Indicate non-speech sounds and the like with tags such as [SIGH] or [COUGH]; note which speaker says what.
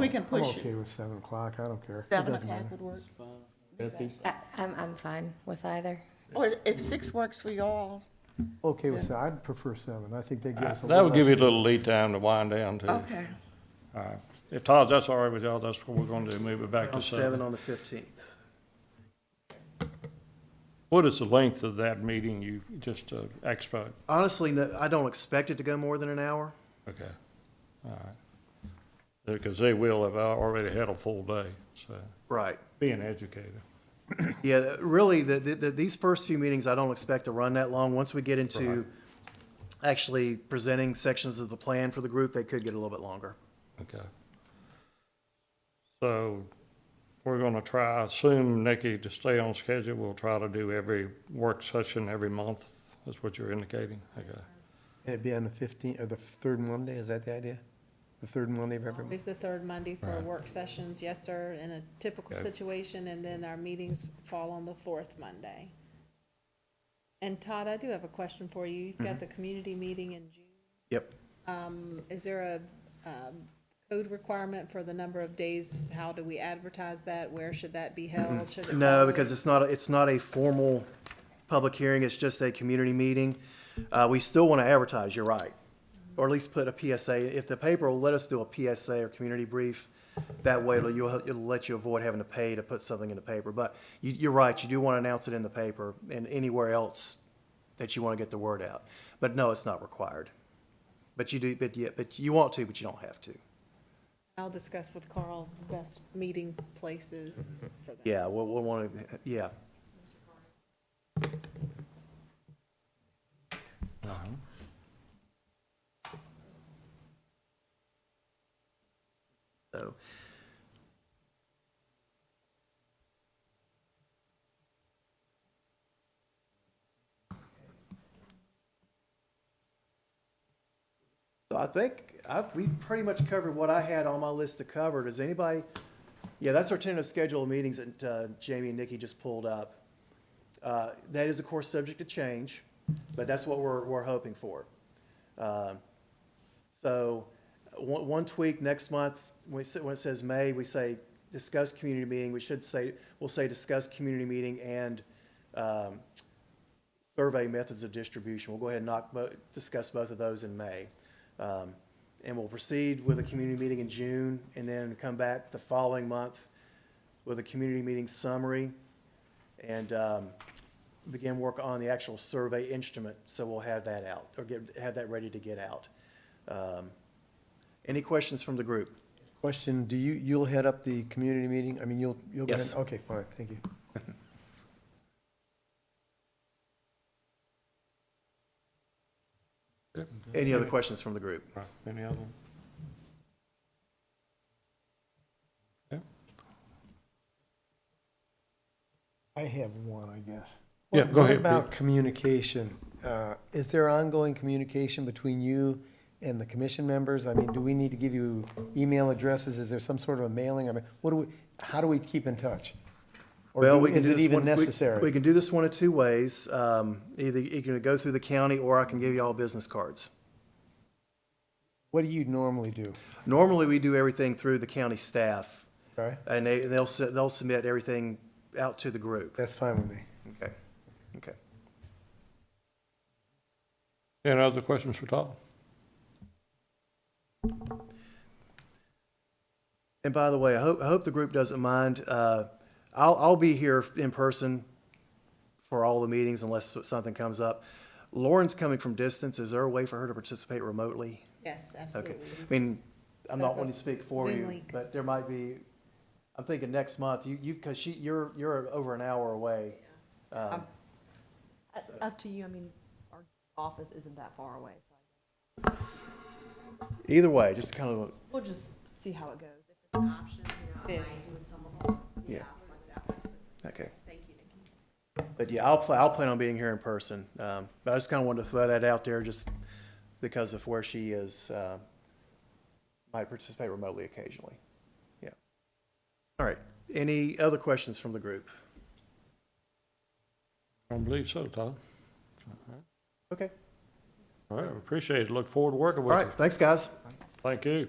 Speaker 1: We can
Speaker 2: I'm
Speaker 1: push
Speaker 2: Oh, okay
Speaker 1: it.
Speaker 2: with seven o'clock, I don't care. It
Speaker 1: Seven
Speaker 2: doesn't
Speaker 1: o'clock
Speaker 2: matter.
Speaker 1: would work.
Speaker 3: I- I'm, I'm fine with either.
Speaker 1: Or Oh, if six works for y'all.
Speaker 2: Okay with seven, I'd prefer seven, I think that gives us a
Speaker 4: Uh, That
Speaker 2: little.
Speaker 4: would give you a little lead time to wind down too.
Speaker 1: Okay.
Speaker 5: All right. If Todd's, that's all right with y'all, that's what we're gonna do, move it back to
Speaker 6: On seven
Speaker 5: seven.
Speaker 6: on the fifteenth.
Speaker 5: What is the length of that meeting you, just, uh, expo?
Speaker 6: Honestly, no, I don't expect it to go more than an hour.
Speaker 5: Okay, all right. Because they will have al- already had a full day, so,
Speaker 6: Right.
Speaker 5: being educated.
Speaker 6: Yeah, th- really, the, the, the, these first few meetings, I don't expect to run that long. Once we get into actually presenting sections of the plan for the group, they could get a little bit longer.
Speaker 5: Okay. So we're going to try, I assume, Nikki, to stay on schedule, we'll try to do every work session every month. That's what you're indicating? Okay.
Speaker 2: And it'd be on the fifteenth, or the third Monday, is that the idea? The third Monday of every month?
Speaker 7: Always the third Monday for work sessions, yes, sir, in a typical
Speaker 5: Okay.
Speaker 7: situation, and then our meetings fall on the fourth Monday. And Todd, I do have a question for you. You've
Speaker 6: Mm-hmm.
Speaker 7: got the community meeting in June.
Speaker 6: Yep.
Speaker 7: Um, Is there a um, code requirement for the number of days? How do we advertise that? Where should that be held? Should it
Speaker 6: Mm-hmm. No,
Speaker 7: follow-
Speaker 6: because it's not, it's not a formal public hearing, it's just a community meeting. Uh, we still want to advertise, you're right. Or at least put a PSA, if the paper will let us do a PSA or community brief, that way it'll, you'll- it'll let you avoid having to pay to put something in the paper. But you, you're right, you do want to announce it in the paper and anywhere else that you want to get the word out. But no, it's not required. But you do, but yeah, but you want to, but you don't have to.
Speaker 7: I'll discuss with Carl the best meeting
Speaker 6: [LAUGHS]
Speaker 7: places for that.
Speaker 6: Yeah, we'll, we'll want to, yeah. Uh-huh. So, so I think I, we pretty much covered what I had on my list to cover. Does anybody? Yeah, that's our tentative schedule of meetings that uh, Jamie and Nikki just pulled up. Uh, that is, of course, subject to change, but that's what we're, we're hoping for. Um, so one, one tweak next month, when it sa- when it says May, we say discuss community meeting, we should say, we'll say discuss community meeting and um, survey methods of distribution. We'll go ahead and knock, bo- discuss both of those in May. Um, And we'll proceed with a community meeting in June and then come back the following month with a community meeting summary and um, begin work on the actual survey instrument. So we'll have that out or get, have that ready to get out. Um, Any questions from the group?
Speaker 2: Question, do you, you'll head up the community meeting, I mean, you'll, you'll. go ahead-
Speaker 6: Yes.
Speaker 2: Okay, fine, thank you.
Speaker 6: Any other questions from the group?
Speaker 5: Right. Any other?
Speaker 2: I have one, I guess.
Speaker 5: Yeah,
Speaker 2: What-
Speaker 5: go
Speaker 2: what
Speaker 5: ahead,
Speaker 2: About communication, uh, is there ongoing communication between you and the commission members? I mean, do we need to give you email addresses? Is there some sort of a mailing? I mean, what do we, how do we keep in touch? Or
Speaker 6: Well,
Speaker 2: do-
Speaker 6: we can
Speaker 2: is
Speaker 6: do
Speaker 2: it
Speaker 6: this
Speaker 2: even
Speaker 6: one- we-
Speaker 2: necessary?
Speaker 6: We can do this one of two ways. Um, Either you can go through the county, or I can give you all business cards.
Speaker 2: What do you normally do?
Speaker 6: Normally, we do everything through the county staff,
Speaker 2: Okay,
Speaker 6: and they, they'll, su- they'll submit everything out to the group.
Speaker 2: that's fine with me.
Speaker 6: Okay, okay.
Speaker 5: Any other questions for Todd?
Speaker 6: And by the way, I hope, I hope the group doesn't mind. Uh, I'll, I'll be here in person for all the meetings unless something comes up. Lauren's coming from distance. Is there a way for her to participate remotely?
Speaker 7: Yes,
Speaker 6: Okay.
Speaker 7: absolutely.
Speaker 6: I mean, I'm not wanting to speak for
Speaker 7: Zoom
Speaker 6: you,
Speaker 7: link.
Speaker 6: but there might be, I'm thinking next month, you, you, because she, you're, you're over an hour away. Um,
Speaker 8: Uh, Up to you, I mean, our office isn't that far away, so
Speaker 6: Either way, just kind of,
Speaker 8: we'll just see how it goes. If it's an option, you know, I
Speaker 7: Yes.
Speaker 8: might with some of them.
Speaker 6: Yeah.
Speaker 8: like that one.
Speaker 6: okay.
Speaker 8: Thank you, Nikki.
Speaker 6: But yeah, I'll plan, I'll plan on being here in person. Um, but I just kind of wanted to throw that out there just because of where she is. Uh, might participate remotely occasionally. Yeah. All right. Any other questions from the group?
Speaker 5: I don't believe so, Todd.
Speaker 6: Okay.
Speaker 5: All right, appreciate it. Look forward to working
Speaker 6: All
Speaker 5: with you.
Speaker 6: right. Thanks, guys.
Speaker 5: Thank you.